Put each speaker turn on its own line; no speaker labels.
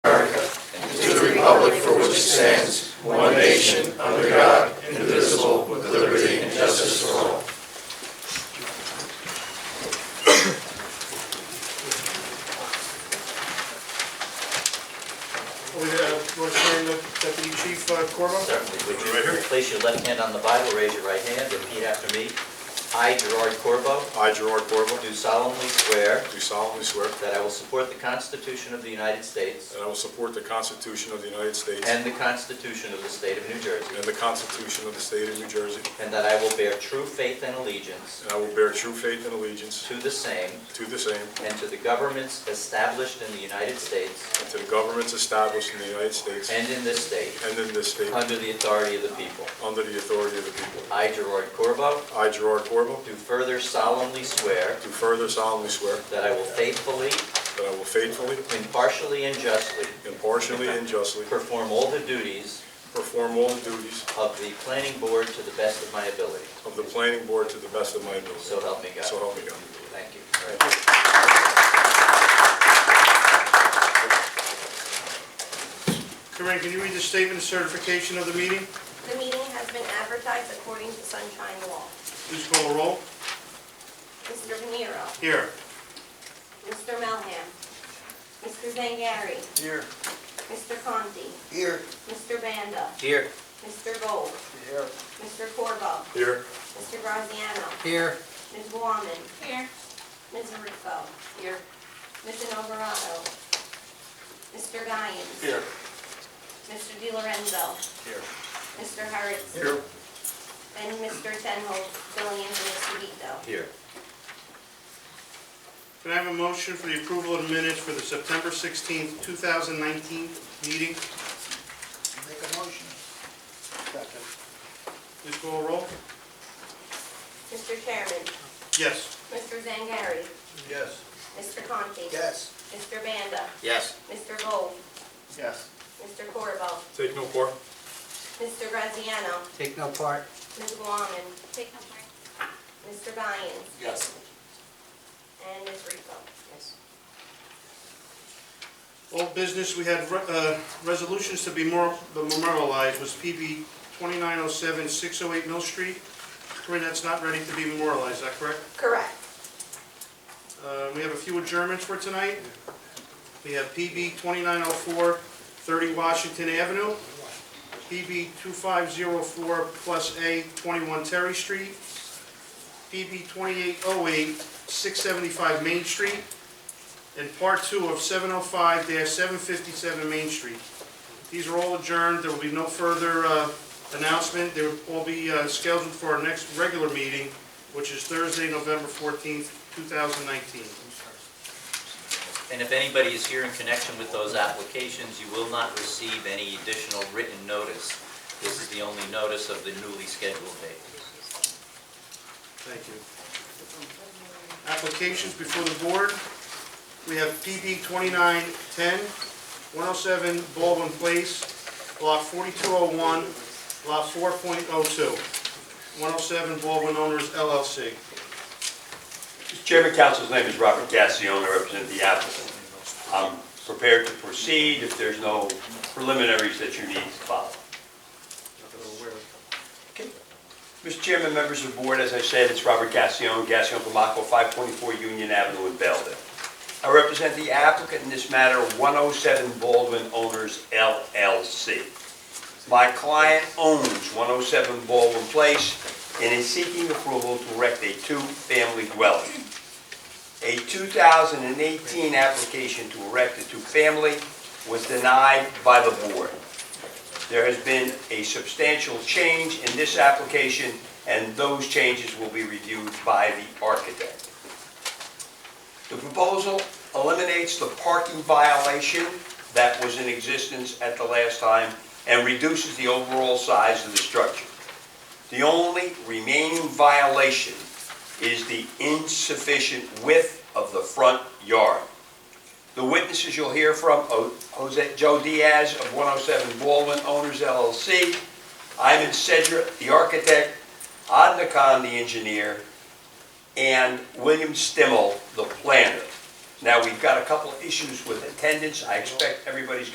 republic for which it stands, one nation, under God, indivisible, with liberty and justice for all.
We, uh, want to turn to Deputy Chief uh, Corvo?
Would you place your left hand on the Bible, raise your right hand, repeat after me. I, Gerard Corvo,
I, Gerard Corvo,
do solemnly swear
do solemnly swear
that I will support the Constitution of the United States
that I will support the Constitution of the United States
and the Constitution of the State of New Jersey,
and the Constitution of the State of New Jersey,
and that I will bear true faith and allegiance
and I will bear true faith and allegiance
to the same
to the same
and to the governments established in the United States
and to the governments established in the United States
and in this state,
and in this state,
under the authority of the people.
under the authority of the people.
I, Gerard Corvo,
I, Gerard Corvo,
do further solemnly swear
do further solemnly swear
that I will faithfully,
that I will faithfully,
impartially, and justly
impartially, and justly
perform all the duties
perform all the duties
of the planning board to the best of my ability.
of the planning board to the best of my ability.
So help me God.
So help me God.
Thank you.
Corinne, can you read the statement of certification of the meeting?
The meeting has been advertised according to Sunshine Law.
Please call a roll.
Mr. Venero,
Here.
Mr. Melham, Mr. Zangari,
Here.
Mr. Conti,
Here.
Mr. Banda,
Here.
Mr. Gold,
Here.
Mr. Corvo,
Here.
Mr. Graziano,
Here.
Ms. Gorman. Here. Ms. Ruffo. Here. Mr. Alvarado. Mr. Guyan.
Here.
Mr. Di Lorenzo.
Here.
Mr. Harris.
Here.
And Mr. Tenhold, filling in for Mr. Vito.
Here.
Can I have a motion for the approval of the minutes for the September 16th, 2019 meeting?
Make a motion. Second.
Please call a roll.
Mr. Chairman,
Yes.
Mr. Zangari,
Yes.
Mr. Conti.
Yes.
Mr. Banda,
Yes.
Mr. Gold,
Yes.
Mr. Corvo,
Take no part.
Mr. Graziano,
Take no part.
Ms. Guaman, Mr. Guyan,
Yes.
and Ms. Rico. Yes.
Old business, we had re- uh, resolutions to be more memorialized was PB 2907, 608 Mill Street. Corinne, that's not ready to be memorialized, is that correct?
Correct.
Uh, We have a few adjournments for tonight. We have PB 2904, 30 Washington Avenue, PB 2504 plus A, 21 Terry Street, PB 2808, 675 Main Street, and Part 2 of 705-757 Main Street. These are all adjourned, there will be no further uh, announcement, they will all be uh, scheduled for our next regular meeting, which is Thursday, November 14th, 2019.
And if anybody is here in connection with those applications, you will not receive any additional written notice. This is the only notice of the newly scheduled date.
Thank you. Applications before the board. We have PB 2910, 107 Baldwin Place, Lot 4201, Lot 4.02, 107 Baldwin Owners LLC.
Mr. Chairman, council's name is Robert Gassione, I represent the applicant. I'm prepared to proceed if there's no preliminaries that you need to follow. Okay. Mr. Chairman, members of the board, as I said, it's Robert Gassione, Gassione Pomacco, 524 Union Avenue in Belleville. I represent the applicant in this matter, 107 Baldwin Owners LLC. My client owns 107 Baldwin Place and is seeking approval to erect a two-family dwelling. A 2018 application to erect a two-family was denied by the board. There has been a substantial change in this application, and those changes will be reviewed by the architect. The proposal eliminates the parking violation that was in existence at the last time and reduces the overall size of the structure. The only remaining violation is the insufficient width of the front yard. The witnesses you'll hear from, O- Jose, Joe Diaz of 107 Baldwin Owners LLC, Ivan Sedra, the architect, Adna Khan, the engineer, and William Stimmel, the planner. Now, we've got a couple of issues with attendance, I expect everybody's